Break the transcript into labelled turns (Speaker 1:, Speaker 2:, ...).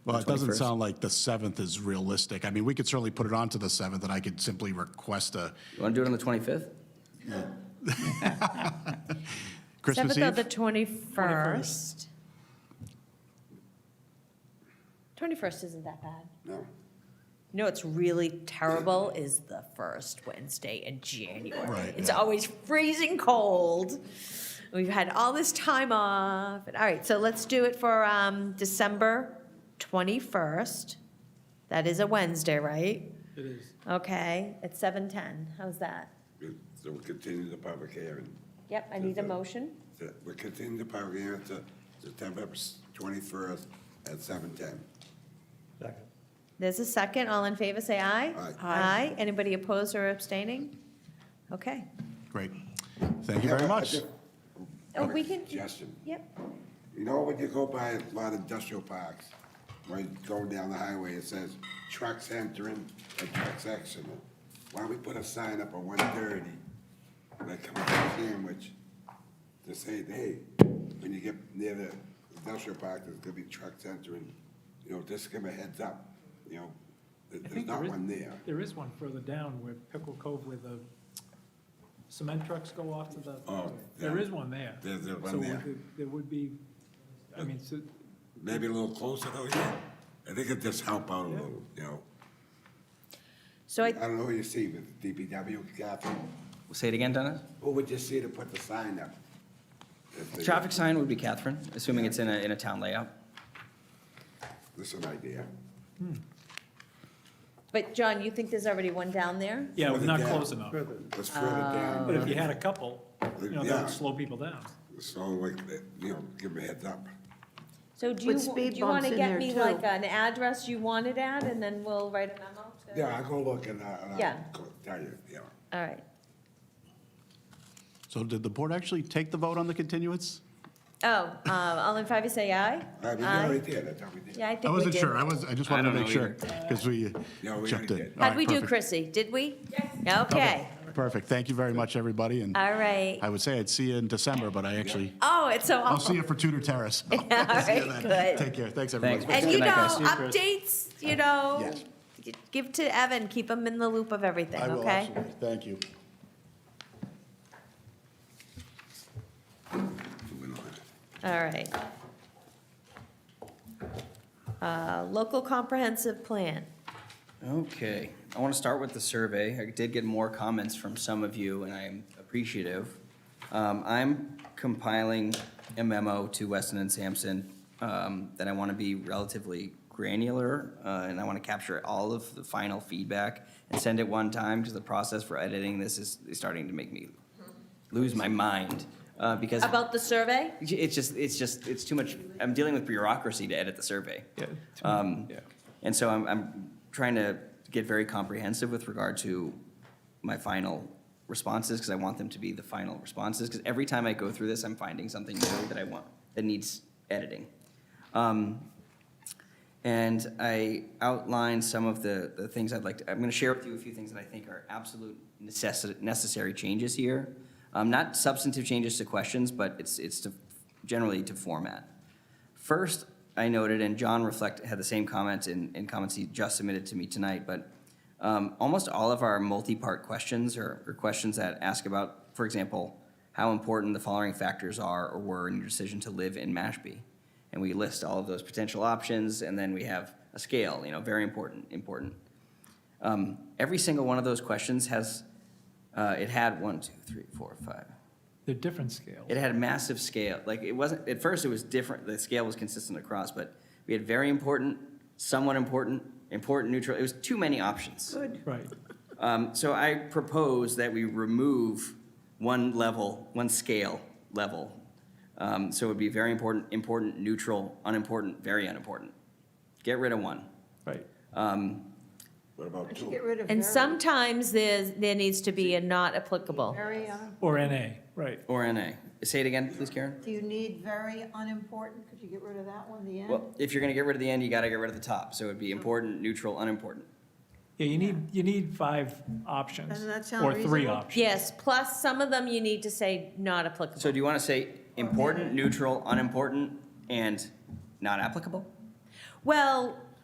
Speaker 1: Well, it doesn't
Speaker 2: 21st.
Speaker 1: sound like the 7th is realistic. I mean, we could certainly put it on to the 7th, and I could simply request a
Speaker 2: You want to do it on the 25th?
Speaker 1: Christmas
Speaker 3: Seventh of the
Speaker 1: Eve.
Speaker 3: twenty-first. Twenty-first isn't that bad. No. You know what's really terrible is the first Wednesday in January.
Speaker 1: Right,
Speaker 3: It's
Speaker 1: yeah.
Speaker 3: always freezing cold. We've had all this time off. All right, so let's do it for um, December twenty-first. That is a Wednesday, right?
Speaker 4: It is.
Speaker 3: Okay, at seven-ten. How's that?
Speaker 5: So we'll continue the public hearing.
Speaker 3: Yep, I need a motion.
Speaker 5: So We'll continue the public hearing to September twenty-first at seven ten.
Speaker 3: There's a second. All in favor, say aye.
Speaker 5: Aye.
Speaker 3: Aye. Anybody opposed or abstaining? Okay.
Speaker 1: Great. Thank you very much.
Speaker 3: Oh, we can,
Speaker 5: Suggestion.
Speaker 3: yep.
Speaker 5: You know, when you go by a lot of industrial parks, when you go down the highway, it says trucks entering and trucks exiting. Why don't we put a sign up on one thirty, like come up to Sandwich, to say, hey, when you get near the industrial park, there's gonna be trucks entering, you know, just give 'em a heads up, you know, that
Speaker 4: I
Speaker 5: there's
Speaker 4: think
Speaker 5: not
Speaker 4: there is-
Speaker 5: one there.
Speaker 4: There is one further down where Pickle Cove where the cement trucks go off to the,
Speaker 5: Oh,
Speaker 4: there
Speaker 5: yeah.
Speaker 4: is one there.
Speaker 5: There's- there's one
Speaker 4: So would
Speaker 5: there.
Speaker 4: There would be, I mean, so,
Speaker 5: Maybe a little closer though, yeah. I think it'd just help out a little, you know.
Speaker 3: So I,
Speaker 5: I don't know what you see with DPW, Catherine.
Speaker 2: Say it again, Dennis?
Speaker 5: Who would you see to put the sign up? If they-
Speaker 2: Traffic sign would be Catherine, assuming it's in a, in a town layout.
Speaker 5: That's an idea.
Speaker 3: but John, you think there's already one down there?
Speaker 4: yeah, we're
Speaker 5: Further
Speaker 4: not
Speaker 5: down.
Speaker 4: close enough. Uh.
Speaker 5: Let's further down.
Speaker 4: But if you had a couple, you know, that
Speaker 5: Yeah.
Speaker 4: would slow people down.
Speaker 5: So like, uh, you know, give them a heads up.
Speaker 3: So do you,
Speaker 6: With
Speaker 3: do
Speaker 6: speed
Speaker 3: you want
Speaker 6: bumps
Speaker 3: to
Speaker 6: in
Speaker 3: get
Speaker 6: there,
Speaker 3: me
Speaker 6: too.
Speaker 3: like an address you want it at, and then we'll write a memo? to-
Speaker 5: Yeah, I'll go look and I- and
Speaker 3: Yeah.
Speaker 5: I'll go tell you, yeah.
Speaker 3: All right.
Speaker 1: So did the board actually take the vote on the continuance?
Speaker 3: Oh, um, all in favor, say aye.
Speaker 5: I mean, we
Speaker 6: Uh,
Speaker 5: already did, I thought we did.
Speaker 3: Yeah, I think we
Speaker 1: I
Speaker 3: did.
Speaker 1: wasn't sure. I was, I just
Speaker 2: I
Speaker 1: wanted to
Speaker 2: don't
Speaker 1: make
Speaker 2: know
Speaker 1: sure, because we
Speaker 5: Yeah, we
Speaker 1: checked
Speaker 5: already
Speaker 1: in.
Speaker 5: did.
Speaker 1: All
Speaker 3: How'd
Speaker 1: right,
Speaker 3: we do,
Speaker 1: perfect.
Speaker 3: Chrissy? Did we? Yes. Okay,
Speaker 1: Okay, Perfect. Thank you very much, everybody, and
Speaker 3: all right.
Speaker 1: I would say I'd see you in December, but I actually,
Speaker 3: Oh, it's so
Speaker 1: I'll
Speaker 3: awful.
Speaker 1: see you for Tudor Terrace. All
Speaker 3: All right, good.
Speaker 1: Take care. Thanks, everybody.
Speaker 2: Thanks.
Speaker 3: And
Speaker 2: Good
Speaker 3: you know,
Speaker 2: night, guys.
Speaker 3: updates, you know,
Speaker 1: Yes.
Speaker 3: g- give to Evan, keep him in the loop of everything,
Speaker 1: I will,
Speaker 3: okay?
Speaker 1: absolutely. Thank you.
Speaker 5: Moving on.
Speaker 3: All right. Uh, Local comprehensive plan.
Speaker 2: Okay, I want to start with the survey. I did get more comments from some of you, and I'm appreciative. Um, I'm compiling a memo to Weston and Sampson um, that I want to be relatively granular, uh, and I want to capture all of the final feedback and send it one time, because the process for editing this is is starting to make me lose my mind, uh, because
Speaker 3: About the survey?
Speaker 2: it's just, it's just, it's too much, I'm dealing with bureaucracy to edit the survey. Um, And so I'm, I'm trying to get very comprehensive with regard to my final responses, because I want them to be the final responses, because every time I go through this, I'm finding something new that I want, that needs editing. Um, and I outlined some of the, the things I'd like to, I'm gonna share with you a few things that I think are absolute necessi- necessary changes here. Um, not substantive changes to questions, but it's, it's to, generally to format. First, I noted, and John reflect, had the same comment in, in comments he just submitted to me tonight, but um, almost all of our multi-part questions or, or questions that ask about, for example, how important the following factors are or were in your decision to live in Mashpee. And we list all of those potential options, and then we have a scale, you know, very important, important. Um, every single one of those questions has, uh, it had one, two, three, four, five,
Speaker 4: They're different scales.
Speaker 2: it had a massive scale. Like it wasn't at first. It was different. The scale was consistent across, but we had very important, somewhat important, important, neutral. It was too many options.
Speaker 4: Right.
Speaker 2: Um, so I propose that we remove one level, one scale level. Um, so it would be very important, important, neutral, unimportant, very unimportant. Get rid of one.
Speaker 4: Right.
Speaker 2: Um,
Speaker 5: What about two?
Speaker 6: Get rid of
Speaker 3: And
Speaker 6: very-
Speaker 3: sometimes there's, there needs to be a not applicable.
Speaker 6: Very, uh, un-
Speaker 4: Or NA, right.
Speaker 2: or NA. Say it again, please, Karen.
Speaker 6: do you need very unimportant? Could you get rid of that one, the end?
Speaker 2: Well, if you're going to get rid of the end, you got to get rid of the top. So it would be important, neutral, unimportant.
Speaker 4: Yeah, you need, you need five options.
Speaker 6: Doesn't that sound
Speaker 4: Or three
Speaker 6: reasonable?
Speaker 4: options.
Speaker 3: Yes, plus some of them you need to say not applicable.
Speaker 2: So do you want to say important, neutral, unimportant, and not applicable?
Speaker 3: Well,